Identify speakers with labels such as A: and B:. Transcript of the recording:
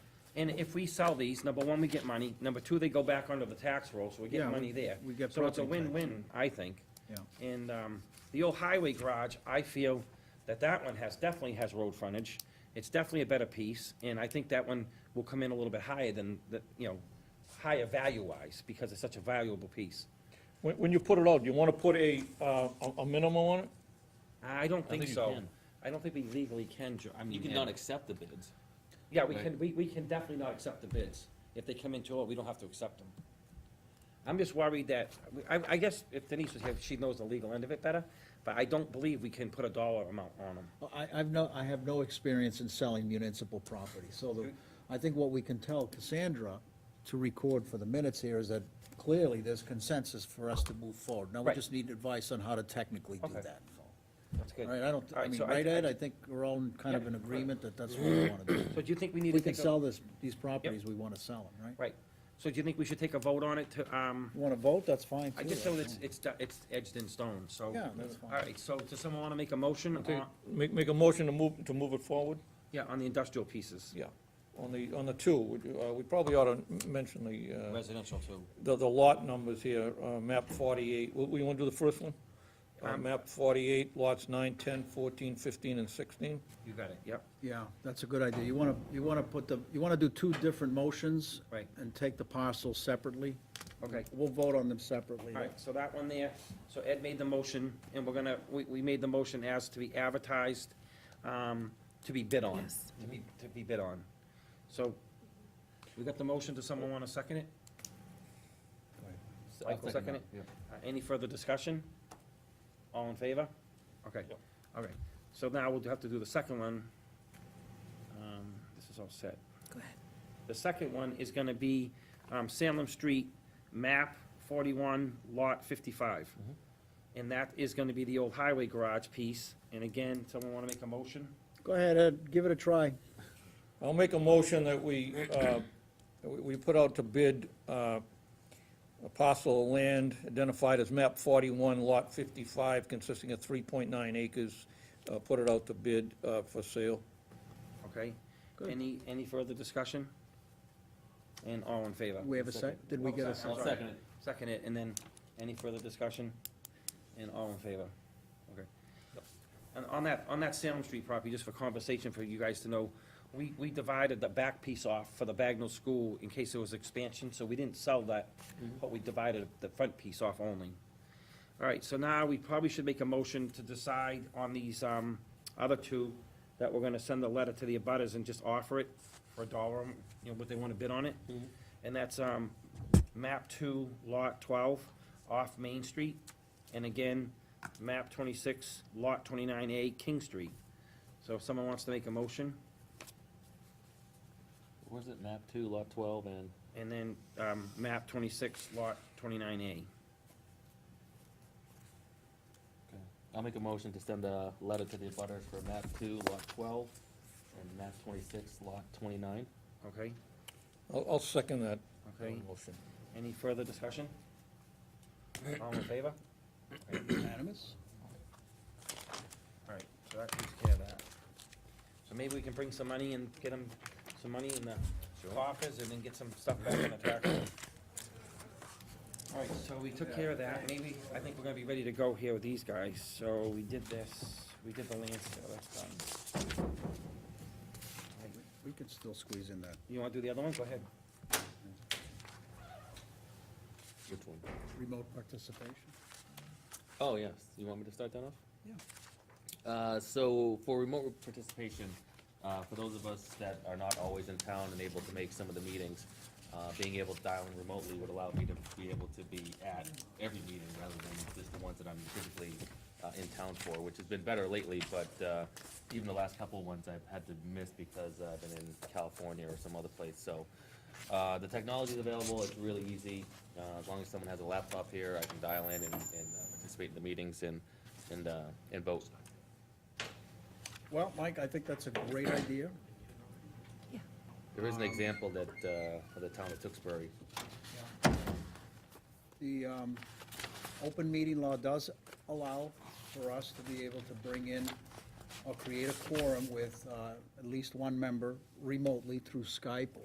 A: And if we sell these, number one, we get money, number two, they go back onto the tax roll, so we
B: Yeah,
A: get
B: we-
A: money there.
B: we get
A: So it's a
B: property tax.
A: win-win, I think.
B: Yeah.
A: And, um, the old highway garage, I feel that that one has, definitely has road frontage. It's definitely a better piece, and I think that one will come in a little bit higher than, the you know, higher value-wise, because it's such a valuable piece.
C: When, when you put it out, you wanna put a, uh, a, a minimum on it?
A: I don't think
D: think you
A: so.
D: can.
A: I don't think we legally can, Jo- I mean.
D: You
A: yeah.
D: cannot accept the bids.
A: Yeah, we
D: Right.
A: can, we, we can definitely not accept the bids. If they come into it, we don't have to accept them. I'm just worried that, I, I guess if Denise was here, she knows the legal end of it better, but I don't believe we can put a dollar amount on them.
B: Well, I, I've no, I have no experience in selling municipal property, so the, I think what we can tell Cassandra to record for the minutes here is that clearly there's consensus for us to move forward. Now, we
A: Right.
B: just need advice on how to technically do
A: Okay.
B: that.
A: That's
B: All
A: good.
B: right, I don't,
A: All
B: I
A: right,
B: mean,
A: so
B: right,
A: I-
B: Ed, I think we're all in kind of in agreement that that's what we wanna do.
A: So do you think we need to
B: We can
A: take a-
B: sell this, these properties, we wanna sell them, right?
A: Right. So do you think we should take a vote on it to, um,
B: You wanna vote, that's fine.
A: I
B: too,
A: just know
B: that's
A: it's,
B: fine.
A: it's, do- it's edged in stone, so.
B: Yeah, that's fine.
A: All right, so does someone wanna make a motion
C: Take-
A: on,
C: Make, make a motion to move, to move it forward?
A: yeah, on the industrial pieces?
C: Yeah. On the, on the two, we, uh, we probably ought to mention the, uh,
D: Residential too.
C: the, the lot numbers here, uh, map forty-eight, we, we wanna do the first one? Uh,
A: Um,
C: map forty-eight, lots nine, ten, fourteen, fifteen, and sixteen?
A: You got it, yep.
B: Yeah, that's a good idea. You wanna, you wanna put the, you wanna do two different motions?
A: Right.
B: And take the parcels separately?
A: Okay.
B: We'll vote on them separately.
A: All right, so that one there, so Ed made the motion, and we're gonna, we, we made the motion as to be advertised, um, to be bid on.
E: Yes.
A: To be, to be bid on. So, we got the motion, does someone wanna second it?
D: I'll
A: Michael, second it? Uh, Any further discussion? All in favor? Okay,
C: Yep.
A: all right, so now we'll have to do the second one. Um, This is all set.
E: Go ahead.
A: The second one is gonna be um, Salem Street, map forty-one, lot fifty-five. And that is gonna be the old highway garage piece, and again, someone wanna make a motion?
B: Go ahead, Ed, give it a try.
C: I'll make a motion that we, uh, we we put out to bid uh, a parcel of land identified as map 41, lot 55, consisting of 3.9 acres. Uh, Put it out to bid uh, for sale.
A: Okay,
B: Good.
A: any, any further discussion? And all in favor?
B: We have a sec, did we get a second?
A: Sorry.
D: I'll second it.
A: Second it, and then, any further discussion? And all in favor? Okay. And on that, on that Salem Street property, just for conversation for you guys to know, we, we divided the back piece off for the Bagnell School in case there was expansion, so we didn't sell that,
B: Mm-hmm.
A: but we divided the front piece off only. All right, so now we probably should make a motion to decide on these, um, other two, that we're gonna send a letter to the abutters and just offer it for a dollar, um, you know, what they wanna bid on it. And that's, um, map two, lot twelve, off Main Street, and again, map twenty-six, lot twenty-nine A, King Street. So if someone wants to make a motion,
D: Where's it, map two, lot twelve, and
A: and then, um, map twenty-six, lot twenty-nine A.
D: I'll make a motion to send a letter to the abutters for map two, lot twelve, and map twenty-six, lot twenty-nine.
A: Okay,
C: I'll I'll second that
A: okay,
C: motion.
A: any further discussion? All in favor?
B: Unanimous?
A: All right, so that takes care of that. So maybe we can bring some money and get them, some money in the coffers and then get some stuff back in the tax. All right, so we took care of that, maybe, I think we're gonna be ready to go here with these guys, so we did this, we did the land sale, that's done.
B: We could still squeeze in that
A: You wanna do the other one, go ahead.
D: Which one?
B: remote participation.
D: Oh, yes, you want me to start that off?
B: Yeah.
D: Uh, so for remote participation, uh, for those of us that are not always in town and able to make some of the meetings, uh, being able to dial in remotely would allow me to be able to be at every meeting rather than just the ones that I'm typically, uh, in town for, which has been better lately, but, uh, even the last couple of ones I've had to miss because uh, I've been in California or some other place, so, uh, the technology is available, it's really easy. Uh, as long as someone has a laptop here, I can dial in and, and uh, participate in the meetings and, and, uh, and vote.
B: Well, Mike, I think that's a great idea.
D: There is an example that, uh, of the town of Tewksbury.
B: The um, open meeting law does allow for us to be able to bring in or create a quorum with uh, at least one member remotely through Skype